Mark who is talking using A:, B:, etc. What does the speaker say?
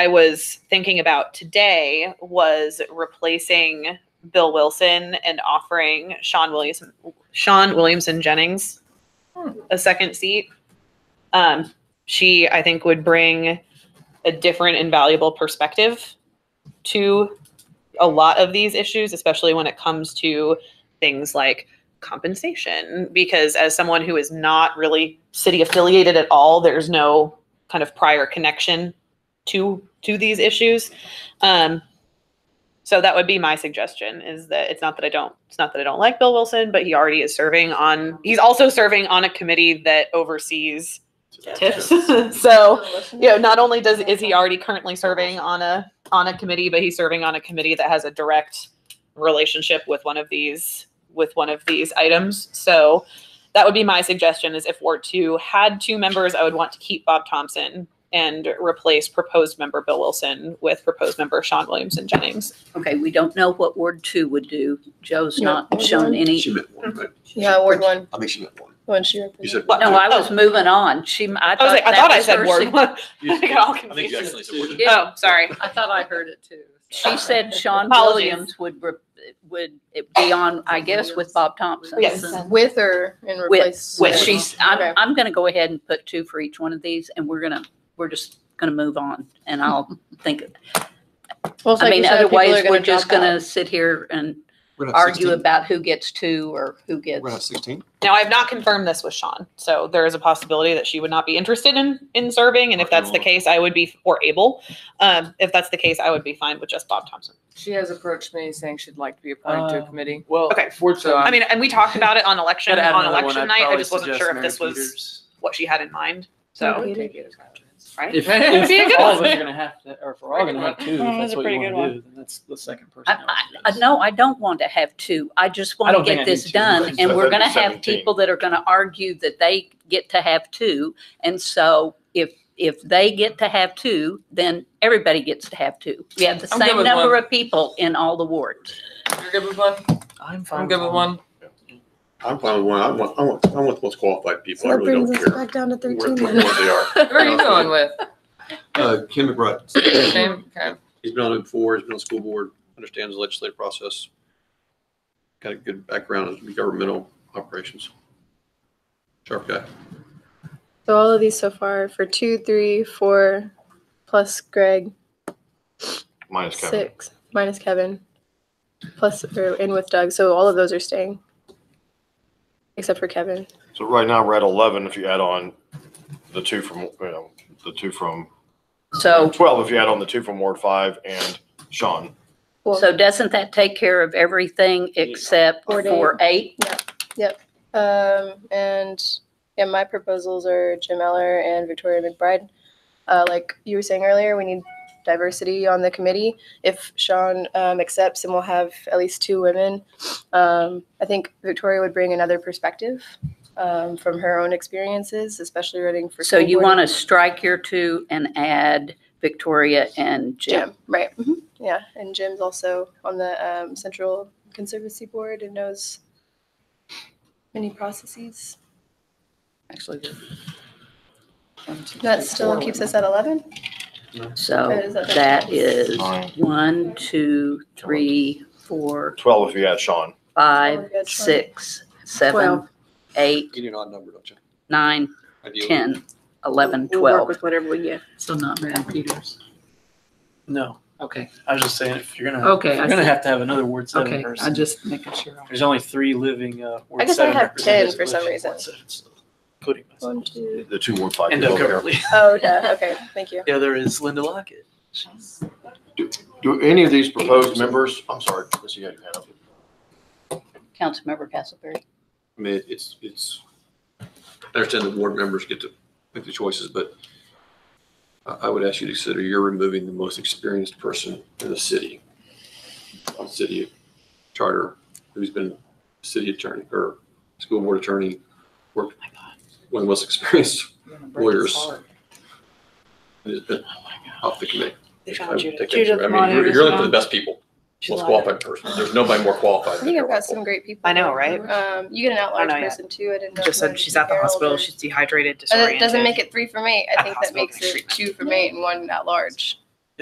A: I was thinking about today was replacing Bill Wilson and offering Sean Williamson, Sean Williamson Jennings a second seat. Um, she, I think, would bring a different and valuable perspective to a lot of these issues, especially when it comes to things like compensation. Because as someone who is not really city affiliated at all, there's no kind of prior connection to to these issues. Um, so that would be my suggestion is that it's not that I don't it's not that I don't like Bill Wilson, but he already is serving on he's also serving on a committee that oversees tips. so you know, not only does is he already currently serving on a on a committee, but he's serving on a committee that has a direct relationship with one of these with one of these items. So that would be my suggestion is if Ward 2 had two members, I would want to keep Bob Thompson and replace proposed member Bill Wilson with proposed member Sean Williamson Jennings.
B: Okay, we don't know what Ward two would do. Joe's
C: Yeah,
B: not
C: Ward
B: shown
C: one.
B: any.
D: She meant one, right?
C: Yeah, Ward one,
D: I mean, she meant one.
C: when she.
D: You said
B: No, I was
A: Oh.
B: moving on.
A: I
B: She, I
A: was
B: thought
A: like, I
B: that
A: thought I
B: was her
A: said Ward
B: sug-
A: 1. I got all
E: I think
A: confused.
E: you actually said Ward.
B: Yeah.
A: Oh, sorry.
C: I thought I heard it too.
B: She said Sean
A: Apologies.
B: Williams would, re- would be on, I guess, with Bob Thompson.
A: Yes.
C: With her and
B: With-
C: replace.
B: Well,
A: With.
B: she's,
C: Okay.
B: I'm, I'm gonna go ahead and put two for each one of these and we're gonna, we're just gonna move on and I'll think,
C: Well, it's
B: I
C: like
B: mean,
C: you said, people are
B: otherwise, we're
C: gonna
B: just
C: drop out.
B: gonna sit here and
D: We're gonna have
B: argue
D: 16.
B: about who gets two or who
D: We're gonna have
B: gets.
D: sixteen.
A: Now, I have not confirmed this with Sean, so there is a possibility that she would not be interested in in serving, and if that's the case, I would be or able. Um, if that's the case, I would be fine with just Bob Thompson.
F: She has approached me saying she'd like to be appointed to a
G: Oh.
F: committee.
G: Well,
A: Okay. um,
G: fortunately,
A: I mean, and we talked about it on election
G: Um, gotta add
A: on
G: another one.
A: election
G: I'd
A: night. I
G: probably
A: just wasn't
G: suggest
A: sure if
G: Mary
A: this was
G: Peters.
A: what she had in mind. So
C: Okay.
A: right,
G: If,
A: It'd be a
G: if
A: good
G: all of
A: one.
G: us are gonna have to, or if we're all gonna have two,
C: Mm,
G: if
C: that's
G: that's
C: a
G: what you
C: pretty good
G: wanna do, then that's the second person.
B: I,
G: I would
B: I,
G: guess.
B: no, I don't want to have two. I just
G: I
B: want
G: don't
B: to
G: think
B: get
G: I need
B: this
G: two,
B: done.
G: right?
B: And
G: So
B: we're gonna
G: that'd be
B: have
G: 17.
B: people that are gonna argue that they get to have two. And so if, if they get to have two, then everybody gets to have two. We have the
F: I'm good
B: same
F: with
B: number
F: one.
B: of people in all the wards.
F: You're good with one?
G: I'm fine.
F: I'm good with one.
H: I'm fine with one. I want, I want, I want the most qualified people. I really don't care
C: back down to
H: where, where they are.
F: Who are you going with?
D: Uh, Ken McBride,
F: Shane? Okay.
H: He's been on it before. He's been on school board, understands the legislative process. Got a good background in governmental operations. Sharp guy.
C: So all of these so far for two, three, four, plus Greg,
E: Minus
C: six, minus Kevin, plus, or in with Doug. So all of those are staying. Except for Kevin.
E: So right now, we're at eleven if you add on the two from, you know, the two from,
B: So,
E: twelve if you add on the two from Ward five and Sean.
C: Well,
B: so doesn't that take care of everything except
C: Or Dave.
B: for eight?
C: Um, and yeah, my proposals are Jim Eller and Victoria McBride. Uh, like you were saying earlier, we need diversity on the committee. If Sean um, accepts, then we'll have at least two women. Um, I think Victoria would bring another perspective um, from her own experiences, especially running for.
B: So you want to strike your two and add Victoria and Jim?
C: Jim, right? mhm, Yeah, and Jim's also on the um, Central Conservancy Board and knows many processes.
B: Actually,
C: That still keeps us at eleven.
B: So
C: Is that-
B: that is
E: Nine.
B: one, two, three, four,
E: Twelve if you add Sean.
B: five,
C: Twelve.
B: six, seven,
I: Oh, Twelve.
B: eight,
H: You need an odd number, don't you?
B: nine,
H: Ideally.
B: ten, eleven,
I: We'll work
B: twelve.
I: With whatever we get.
B: So not Mary Peters.
G: No, okay, I was just saying, if you're
F: Oh,
G: gonna,
I: Okay,
G: if
I: I
G: you're gonna
I: see.
G: have to have another Ward seven
I: Okay, I
G: person.
I: just making sure.
G: There's only three living, uh, Ward
C: I guess I
G: seven
C: have 10
G: representatives
C: for some
G: left in
C: reason.
G: Ward seven, so Including myself.
C: One, two,
E: The two Ward five.
G: And
E: people
G: Doug
E: over here.
G: Everly.
C: Oh, duh. Okay, thank you.
G: The other is Linda Lockett.
E: Do any of these proposed members, I'm sorry, Chris, you had your hand up.
B: Councilmember Castleberry.
H: I mean, it's, it's, I understand the board members get to make the choices, but I, I would ask you to consider you're removing the most experienced person in the city, on city charter, who's been city attorney or school board attorney, worked,
I: Oh
H: one of the most experienced, Lawyers. who's been off the committee.
I: Oh They
H: I
I: found
H: would
I: Judith.
H: take that
I: Judith
H: for- I mean, you're-
I: Monaghan
H: you're
I: is
H: looking for the
I: on.
H: best people,
I: She's
H: most
I: on.
H: qualified person. There's nobody more
C: I
H: qualified than
C: think I've
H: Carol
C: got
H: Wolf.
C: some great people.
A: I know, right?
C: Um, you get an
A: I
C: outlier
A: know, yeah.
C: person too. I didn't know.
A: just
C: if you
A: said
C: wanted
A: she's
C: to
A: at the
C: Harold
A: hospital.
C: or-
A: She's dehydrated,
C: Uh, That
A: disoriented.
C: doesn't make it three for me. I
A: At
C: think that
A: hospital
C: makes it
A: treatment.
C: two for me and one at large.